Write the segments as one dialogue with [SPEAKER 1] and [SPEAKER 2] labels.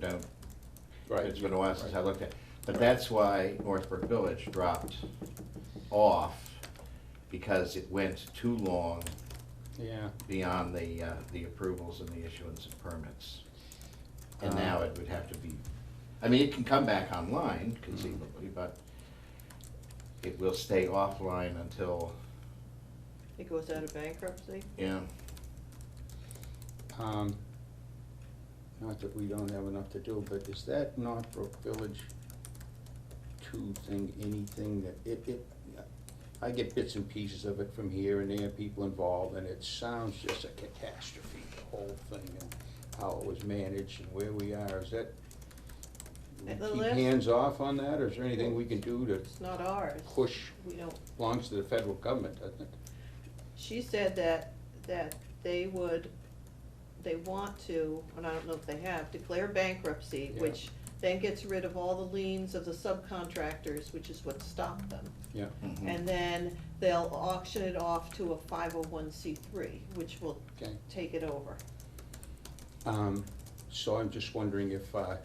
[SPEAKER 1] know,
[SPEAKER 2] Right.
[SPEAKER 1] it's been a while since I looked at. it. But that's why Northbrook Village dropped off, because it went too long
[SPEAKER 2] Yeah,
[SPEAKER 1] beyond the, uh, the approvals and the issuance of permits. And
[SPEAKER 2] Uh.
[SPEAKER 1] now it would have to be, I mean, it can come back online conceivably, but it will stay offline until,
[SPEAKER 3] It goes out of bankruptcy?
[SPEAKER 1] you know,
[SPEAKER 2] um, not that we don't have enough to do, but is that Northbrook Village two thing, anything that, it, it, I get bits and pieces of it from here and there, people involved, and it sounds just a catastrophe, the whole thing, and how it was managed and where we are, is that, we
[SPEAKER 3] At the
[SPEAKER 2] keep
[SPEAKER 3] last-
[SPEAKER 2] hands off on that, or is there anything we can do to
[SPEAKER 3] It's not ours.
[SPEAKER 2] push,
[SPEAKER 3] We don't,
[SPEAKER 2] belongs to the federal government, doesn't it?
[SPEAKER 3] she said that, that they would, they want to, and I don't know if they have, declare bankruptcy,
[SPEAKER 2] Yeah.
[SPEAKER 3] which then gets rid of all the liens of the subcontractors, which is what stopped them.
[SPEAKER 2] Yeah,
[SPEAKER 1] mhm.
[SPEAKER 3] And then they'll auction it off to a five oh one C three, which will
[SPEAKER 2] okay.
[SPEAKER 3] take it over.
[SPEAKER 2] Um, So I'm just wondering if uh,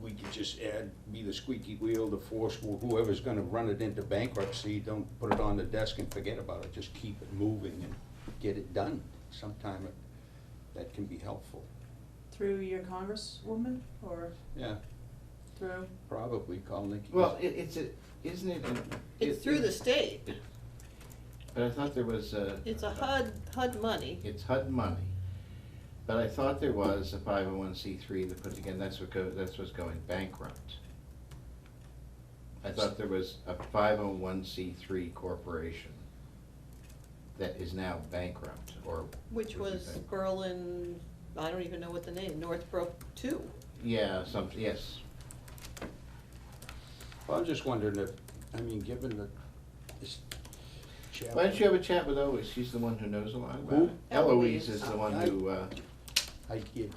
[SPEAKER 2] we could just add, be the squeaky wheel, the force, wh- whoever's gonna run it into bankruptcy, don't put it on the desk and forget about it, just keep it moving and get it done. Sometime it- that can be helpful.
[SPEAKER 4] Through your congresswoman or
[SPEAKER 2] Yeah,
[SPEAKER 4] through,
[SPEAKER 2] probably call Nikki.
[SPEAKER 1] Well, it, it's, a- isn't it? an-
[SPEAKER 3] It's
[SPEAKER 1] it-
[SPEAKER 3] through the state.
[SPEAKER 1] But I thought there was a.
[SPEAKER 3] It's a HUD, HUD money.
[SPEAKER 1] It's HUD money, but I thought there was a five oh one C three that put together, that's what go, that's what's going bankrupt. I thought there was a five oh one C three corporation that is now bankrupt, or.
[SPEAKER 3] Which
[SPEAKER 1] would be
[SPEAKER 3] was
[SPEAKER 1] bankrupt.
[SPEAKER 3] Berlin, I don't even know what the name, Northbrook two.
[SPEAKER 1] Yeah, some, yes,
[SPEAKER 2] Well, I'm just wondering if, I mean, given the, this.
[SPEAKER 1] why don't you have a chat with Eloise, she's the one who knows a lot about
[SPEAKER 2] Who?
[SPEAKER 1] it. Eloise is the
[SPEAKER 3] Eloise.
[SPEAKER 1] one who, uh,
[SPEAKER 2] I get,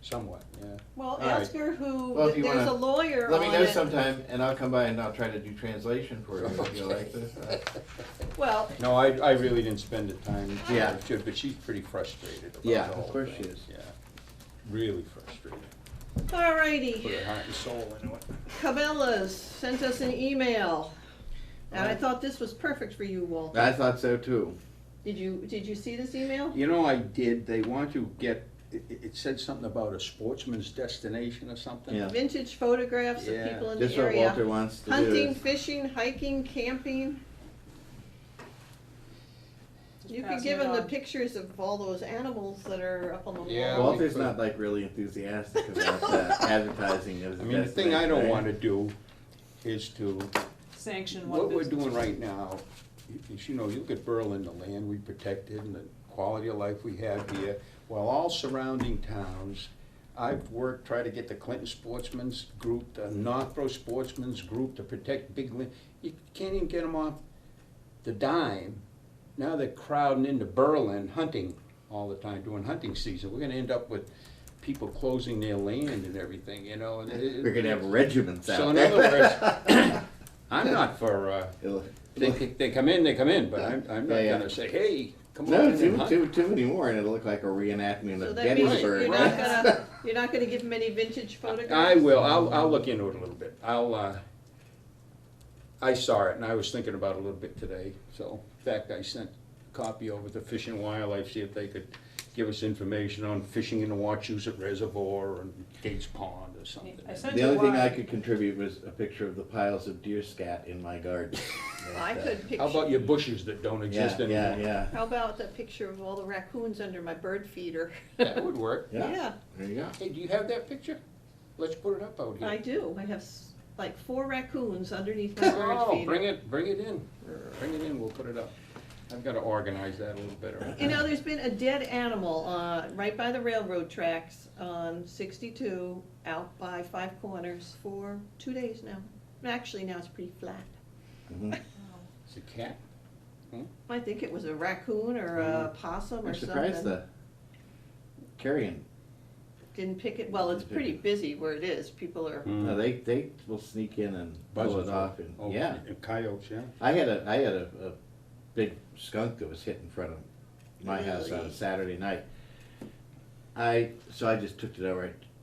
[SPEAKER 2] somewhat, yeah.
[SPEAKER 3] Well,
[SPEAKER 2] All right.
[SPEAKER 3] ask her who,
[SPEAKER 1] Well, if you
[SPEAKER 3] there's a
[SPEAKER 1] wanna-
[SPEAKER 3] lawyer on it.
[SPEAKER 1] let me know sometime, and I'll come by and I'll try to do translation for you if you like this.
[SPEAKER 3] Well,
[SPEAKER 2] No, I, I really didn't spend the time.
[SPEAKER 1] Yeah.
[SPEAKER 2] to- But she's pretty frustrated about
[SPEAKER 1] Yeah,
[SPEAKER 2] the
[SPEAKER 1] of
[SPEAKER 2] whole
[SPEAKER 1] course she
[SPEAKER 2] thing,
[SPEAKER 1] is.
[SPEAKER 2] Yeah, really frustrated. Put
[SPEAKER 3] alrighty,
[SPEAKER 2] her heart and soul into it.
[SPEAKER 3] Cabela's sent us an email, and I
[SPEAKER 2] Alright.
[SPEAKER 3] thought this was perfect for you, Walter.
[SPEAKER 1] I thought so too.
[SPEAKER 3] Did you, did you see this email?
[SPEAKER 2] You know, I did, they want to get, it, it it said something about a sportsman's destination or something.
[SPEAKER 5] Yeah.
[SPEAKER 3] Vintage photographs of
[SPEAKER 2] Yeah.
[SPEAKER 3] people in
[SPEAKER 5] Just
[SPEAKER 3] the
[SPEAKER 5] what Walter
[SPEAKER 3] area,
[SPEAKER 5] wants to do.
[SPEAKER 3] hunting,
[SPEAKER 5] is-
[SPEAKER 3] fishing, hiking, camping.
[SPEAKER 4] just
[SPEAKER 3] You could
[SPEAKER 4] passing
[SPEAKER 3] give
[SPEAKER 4] it
[SPEAKER 3] them the
[SPEAKER 4] on.
[SPEAKER 3] pictures of all those animals that are up on the wall.
[SPEAKER 2] Yeah, well,
[SPEAKER 5] Walter's not like really enthusiastic about the advertising of
[SPEAKER 2] I
[SPEAKER 5] the
[SPEAKER 2] mean, the thing I don't
[SPEAKER 5] destination,
[SPEAKER 2] wanna
[SPEAKER 5] right?
[SPEAKER 2] do is to
[SPEAKER 4] Sanction one
[SPEAKER 2] What we're
[SPEAKER 4] business.
[SPEAKER 2] doing right now, i- is, you know, you look at Berlin, the land we protected and the quality of life we have here, while all surrounding towns, I've worked, tried to get the Clinton Sportsman's Group, the Northborough Sportsman's Group to protect big land. You can't even get them off the dime. Now they're crowding into Berlin, hunting all the time, during hunting season. We're gonna end up with people closing their land and everything, you know, and it.
[SPEAKER 5] We're gonna have regiments out
[SPEAKER 2] So in
[SPEAKER 5] there.
[SPEAKER 2] other words, I'm not for, uh,
[SPEAKER 5] It'll-
[SPEAKER 2] they, they come in, they come in, but I'm, I'm not
[SPEAKER 5] Yeah, yeah.
[SPEAKER 2] gonna say, hey, come on
[SPEAKER 5] No,
[SPEAKER 2] in and
[SPEAKER 5] too,
[SPEAKER 2] hunt.
[SPEAKER 5] too, too many more, and it'll look like a reenactment
[SPEAKER 3] So
[SPEAKER 5] of
[SPEAKER 3] that means
[SPEAKER 5] Gettysburg.
[SPEAKER 3] you're
[SPEAKER 2] right?
[SPEAKER 3] not gonna, you're not gonna give them any vintage photographs?
[SPEAKER 2] I will, I'll, I'll look into it a little bit, I'll, uh, I saw it and I was thinking about it a little bit today, so, in fact, I sent a copy over to Fish and Wildlife, see if they could give us information on fishing in the Wachusett Reservoir and Gates Pond or something.
[SPEAKER 4] I sent
[SPEAKER 5] The
[SPEAKER 4] you
[SPEAKER 5] only thing I
[SPEAKER 4] one.
[SPEAKER 5] could contribute was a picture of the piles of deer scat in my garden.
[SPEAKER 3] I
[SPEAKER 5] But, uh,
[SPEAKER 3] could picture.
[SPEAKER 2] How about your bushes that don't
[SPEAKER 5] Yeah,
[SPEAKER 2] exist
[SPEAKER 5] yeah,
[SPEAKER 2] anymore?
[SPEAKER 5] yeah,
[SPEAKER 3] How about that picture of all the raccoons under my bird feeder?
[SPEAKER 2] That would work.
[SPEAKER 5] yeah.
[SPEAKER 3] Yeah,
[SPEAKER 5] There you go.
[SPEAKER 2] Hey, do you have that picture? Let's put it up out here.
[SPEAKER 3] I do. I have s- like four raccoons underneath my bird
[SPEAKER 2] Oh, bring
[SPEAKER 3] feeder.
[SPEAKER 2] it, bring it in, bring it in, we'll put it up. I've gotta organize that a little better.
[SPEAKER 3] You know, there's been a dead animal, uh, right by the railroad tracks on sixty-two, out by Five Corners for two days now. Actually, now it's pretty flat.
[SPEAKER 5] Mm-hmm.
[SPEAKER 2] It's a cat.
[SPEAKER 3] I think it was a raccoon or a possum or
[SPEAKER 5] I'm
[SPEAKER 3] something.
[SPEAKER 5] surprised the carrion,
[SPEAKER 3] Didn't pick it, well, it's pretty busy where it is. People are,
[SPEAKER 2] Mm.
[SPEAKER 5] no, they, they will sneak in and pull it off and,
[SPEAKER 2] Oh,
[SPEAKER 5] yeah.
[SPEAKER 2] and Coyotes, yeah.
[SPEAKER 5] I had a I had a, a big skunk that was hit in front of my house on
[SPEAKER 3] Really?
[SPEAKER 5] a Saturday night.
[SPEAKER 1] I, so I just took it over, I